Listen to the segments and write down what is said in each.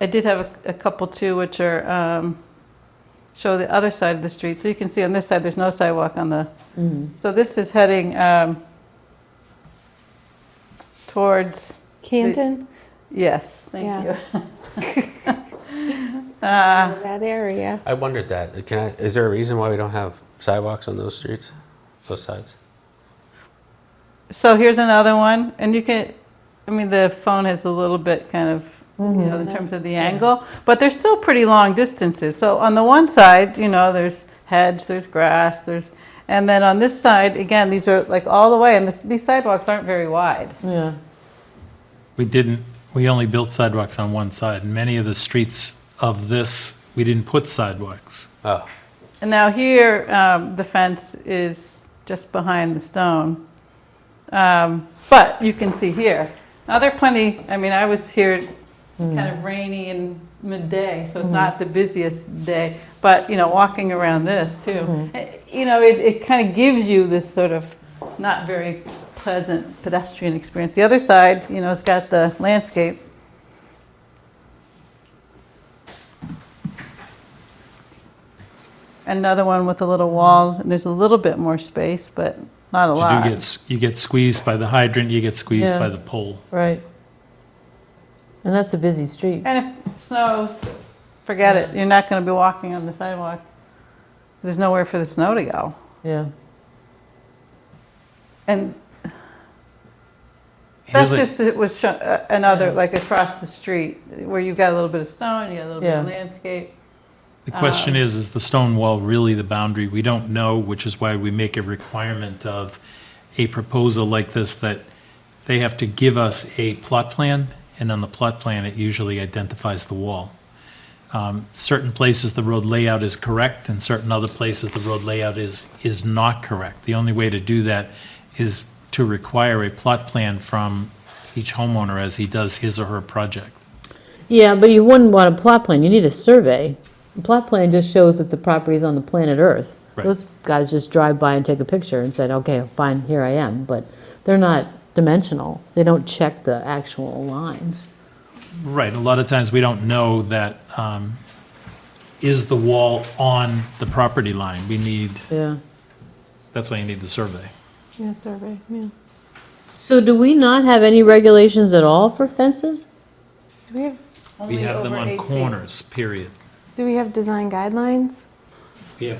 I did have a, a couple too, which are, um, show the other side of the street. So you can see on this side, there's no sidewalk on the, so this is heading, um, towards, Canton, yes, thank Yeah. you. Uh, that area. I wondered that. Can I, is there a reason why we don't have sidewalks on those streets, both sides? So here's another one, and you can, I mean, the phone has a little bit kind of, you know, in terms of the angle, but they're still pretty long distances. So on the one side, you know, there's hedge, there's grass, there's, and then on this side, again, these are like all the way, and this, these sidewalks aren't very wide. Yeah. We didn't, we only built sidewalks on one side. Many of the streets of this, we didn't put sidewalks. Oh, And now here, um, the fence is just behind the stone. Um, but you can see here. Now there are plenty, I mean, I was here kind of rainy and midday, so it's not the busiest day, but, you know, walking around this too. Eh, You know, it, it kind of gives you this sort of not very pleasant pedestrian experience. The other side, you know, it's got the landscape. Another one with a little wall, and there's a little bit more space, but not a You lot. do get, s- you get squeezed by the hydrant, you get squeezed Yeah. by the pole. Right. And that's a busy street. And if it snows, forget it. You're not going to be walking on the sidewalk. There's nowhere for the snow to go. Yeah. And Here's that's a- just, it was sho- uh, another, like across the street, where you've got a little bit of stone, you got a little bit of Yeah. landscape. The question is, is the stone wall really the boundary? We don't know, which is why we make a requirement of a proposal like this that they have to give us a plot plan, and on the plot plan, it usually identifies the wall. Um, Certain places, the road layout is correct, and certain other places, the road layout is, is not correct. The only way to do that is to require a plot plan from each homeowner as he does his or her project. Yeah, but you wouldn't want a plot plan. You need a survey. A plot plan just shows that the property's on the planet Earth. Right. Those guys just drive by and take a picture and said, okay, fine, here I am. But they're not dimensional. They don't check the actual lines. Right, a lot of times we don't know that, um, is the wall on the property line? We need, Yeah. that's why you need the survey. Yeah, survey, yeah. So do we not have any regulations at all for fences? Do we have, We Only have them over on eight feet. corners, period. do we have design guidelines? We have,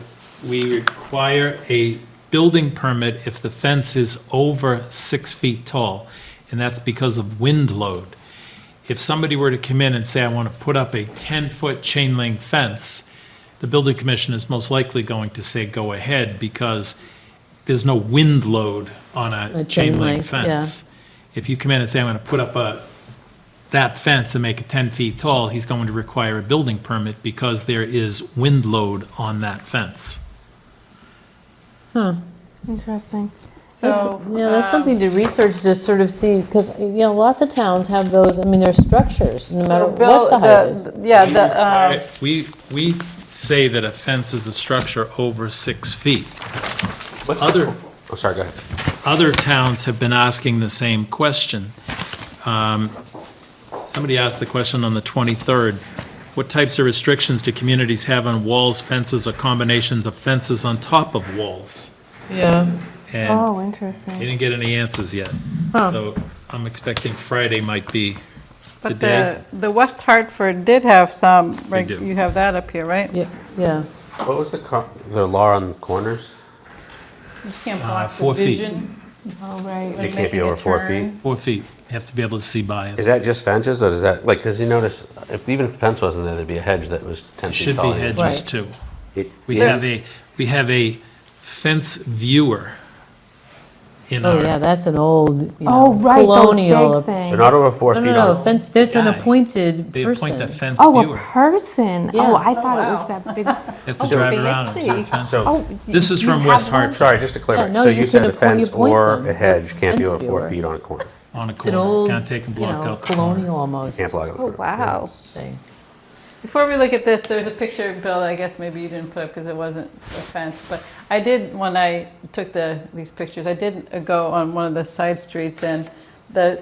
we require a building permit if the fence is over six feet tall, and that's because of wind load. If somebody were to come in and say, I want to put up a 10-foot chain link fence, the building commission is most likely going to say, go ahead, because there's no wind load on A a chain chain link link, yeah. fence. If you come in and say, I'm going to put up a, that fence and make it 10 feet tall, he's going to require a building permit because there is wind load on that fence. Huh. Interesting. That's- So. Yeah, that's um, something to research, to sort of see, because, you know, lots of towns have those, I mean, they're structures, no matter so what Bill- the height is. the- Yeah, We the, require- um, We, we say that a fence is a structure over six feet. Other, oh, sorry, go ahead. other towns have been asking the same question. Um, Somebody asked the question on the 23rd, what types of restrictions do communities have on walls, fences, or combinations of fences on top of walls? Yeah. And Oh, they interesting. didn't get any answers yet. Huh. So I'm expecting Friday might be, the but the, day. the West Hartford did have some, They reg- do. you have that up here, right? Yeah, yeah. What was the, co- the law on corners? You can't Uh, block the four feet. vision. Oh, right. when It can't be making a over four turn. feet? four feet, you have to be able to see by it. Is that just fences, or does that, like, because you notice, if even if the fence wasn't there, there'd be a hedge that was 10 It feet should tall. be hedges Right. too. It We is. have a, we have a fence viewer in Oh, yeah, our, that's an old, you Oh, know, right, those colonial. big No, They're things. not over four no, feet no, on, fence, that's an Guy. appointed they appoint a person. fence Oh, a viewer. person. Yeah. Oh, I thought it wow. was that big. They Have to drive around and see the fence. so. Oh, y- This is you from have West one? Hartford Sorry, just to Yeah, clarify, no, so you you said can a appoint- you fence appoint or them. a hedge can't be Fence over four viewer. feet on a corner, on a It's an corner, old, can't take and you block know, out. colonial almost can't block it. Oh, wow. thing. Before we look at this, there's a picture, Bill, that I guess maybe you didn't put up because it wasn't a fence, but I did, when I took the, these pictures, I did go on one of the side streets and the